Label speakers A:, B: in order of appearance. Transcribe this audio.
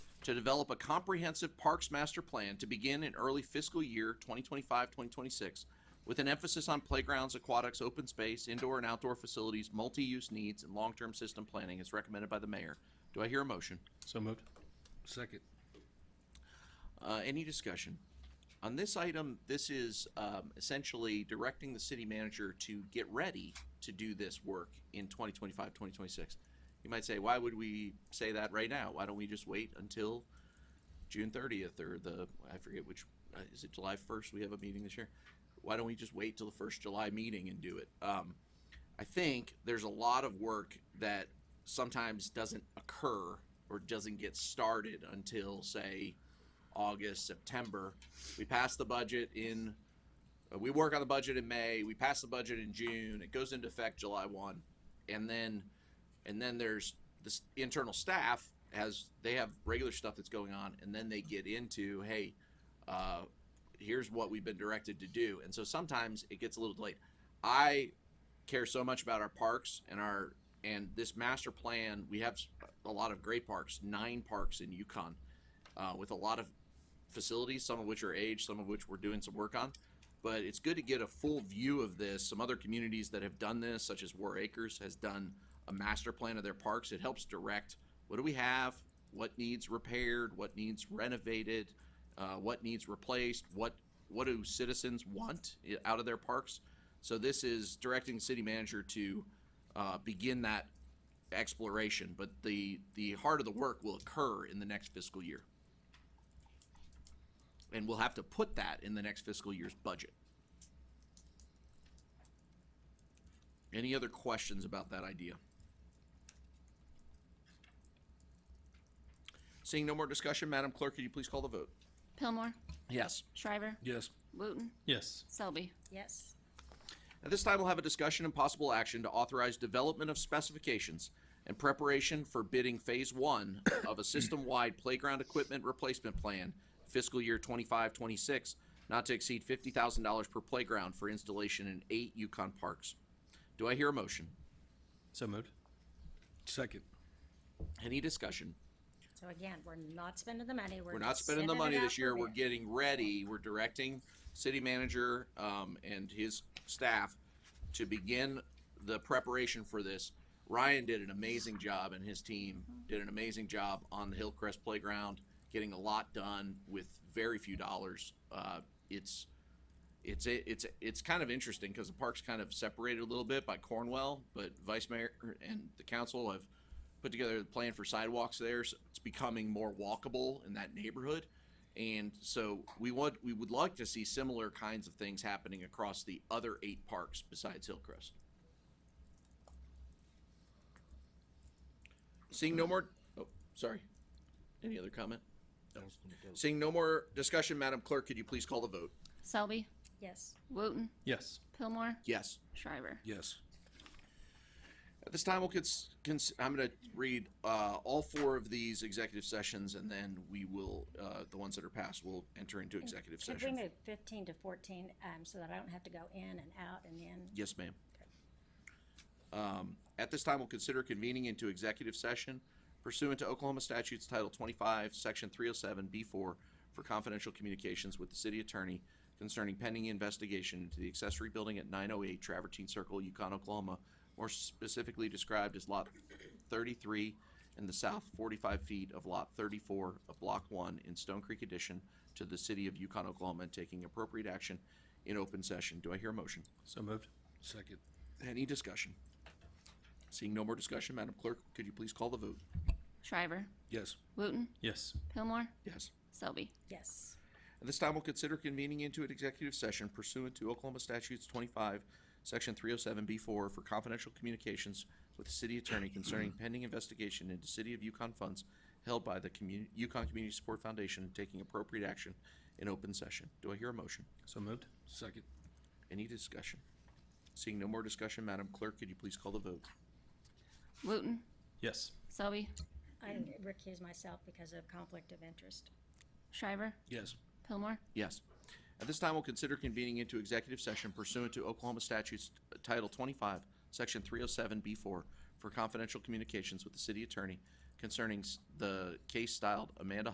A: to develop a comprehensive parks master plan to begin in early fiscal year 2025-2026 with an emphasis on playgrounds, aquatics, open space, indoor and outdoor facilities, multi-use needs, and long-term system planning as recommended by the mayor. Do I hear a motion?
B: So moved.
C: Second.
A: Uh, any discussion? On this item, this is um, essentially directing the city manager to get ready to do this work in 2025, 2026. You might say, why would we say that right now? Why don't we just wait until June 30th or the, I forget which, uh, is it July 1st? We have a meeting this year. Why don't we just wait till the first July meeting and do it? Um, I think there's a lot of work that sometimes doesn't occur or doesn't get started until, say, August, September. We pass the budget in, uh, we work on the budget in May, we pass the budget in June, it goes into effect July 1. And then, and then there's this internal staff has, they have regular stuff that's going on, and then they get into, hey, uh, here's what we've been directed to do. And so sometimes it gets a little delayed. I care so much about our parks and our and this master plan. We have s- a lot of great parks, nine parks in Yukon, uh, with a lot of facilities, some of which are aged, some of which we're doing some work on. But it's good to get a full view of this. Some other communities that have done this, such as War Acres, has done a master plan of their parks. It helps direct what do we have, what needs repaired, what needs renovated, uh, what needs replaced, what what do citizens want i- out of their parks. So this is directing the city manager to uh, begin that exploration, but the the heart of the work will occur in the next fiscal year, and we'll have to put that in the next fiscal year's budget. Any other questions about that idea? Seeing no more discussion, Madam Clerk, could you please call the vote?
D: Pillmore,
A: Yes.
D: Shriver,
C: Yes.
D: Wooten,
B: Yes.
D: Selby.
E: yes,
A: At this time, we'll have a discussion and possible action to authorize development of specifications and preparation for bidding phase one of a system-wide playground equipment replacement plan fiscal year 25-26, not to exceed fifty thousand dollars per playground for installation in eight Yukon parks. Do I hear a motion?
B: So moved.
C: Second.
A: Any discussion?
E: so again, we're not spending the money, we're.
A: We're not
E: just
A: spending the
E: sending
A: money
E: it out
A: this
E: for
A: year. We're
E: bid.
A: getting ready. We're directing city manager um, and his staff to begin the preparation for this. Ryan did an amazing job and his team did an amazing job on the Hillcrest Playground, getting a lot done with very few dollars. Uh, it's it's a, it's a, it's kind of interesting because the park's kind of separated a little bit by Cornwell, but Vice Mayor and the council have put together a plan for sidewalks there. So it's becoming more walkable in that neighborhood, and so we want we would like to see similar kinds of things happening across the other eight parks besides Hillcrest. Seeing no more. Oh, sorry. Any other comment? No. Seeing no more discussion, Madam Clerk, could you please call the vote?
D: Selby,
E: Yes,
D: Wooten,
B: Yes.
D: Pillmore,
A: Yes.
D: Shriver.
C: Yes.
A: At this time, we'll cons- cons- I'm going to read uh, all four of these executive sessions, and then we will uh, the ones that are passed will enter into executive
E: could we
A: session.
E: move fifteen to fourteen, um, so that I don't have to go in and out and in?
A: Yes, ma'am. Um, at this time, we'll consider convening into executive session pursuant to Oklahoma statutes Title 25, Section 307B4 for confidential communications with the city attorney concerning pending investigation into the accessory building at 908 Travertine Circle, Yukon, Oklahoma, more specifically described as Lot 33 in the south 45 feet of Lot 34 of Block 1 in Stone Creek addition to the city of Yukon, Oklahoma, and taking appropriate action in open session. Do I hear a motion?
B: So moved.
C: Second.
A: Any discussion? Seeing no more discussion, Madam Clerk, could you please call the vote?
D: Shriver,
C: Yes.
D: Wooten,
B: Yes.
D: Pillmore,
A: Yes.
D: Selby.
E: Yes,
A: At this time, we'll consider convening into an executive session pursuant to Oklahoma Statutes 25, Section 307B4 for confidential communications with the city attorney concerning pending investigation into City of Yukon funds held by the commu- Yukon Community Support Foundation and taking appropriate action in open session. Do I hear a motion?
B: So moved.
C: Second.
A: Any discussion? Seeing no more discussion, Madam Clerk, could you please call the vote?
D: Wooten,
B: Yes.
D: Selby,
E: I recuse myself because of conflict of interest.
D: Shriver,
C: Yes.
D: Pillmore,
A: Yes. At this time, we'll consider convening into executive session pursuant to Oklahoma statutes uh, Title 25, Section 307B4 for confidential communications with the city attorney concerning s- the case styled Amanda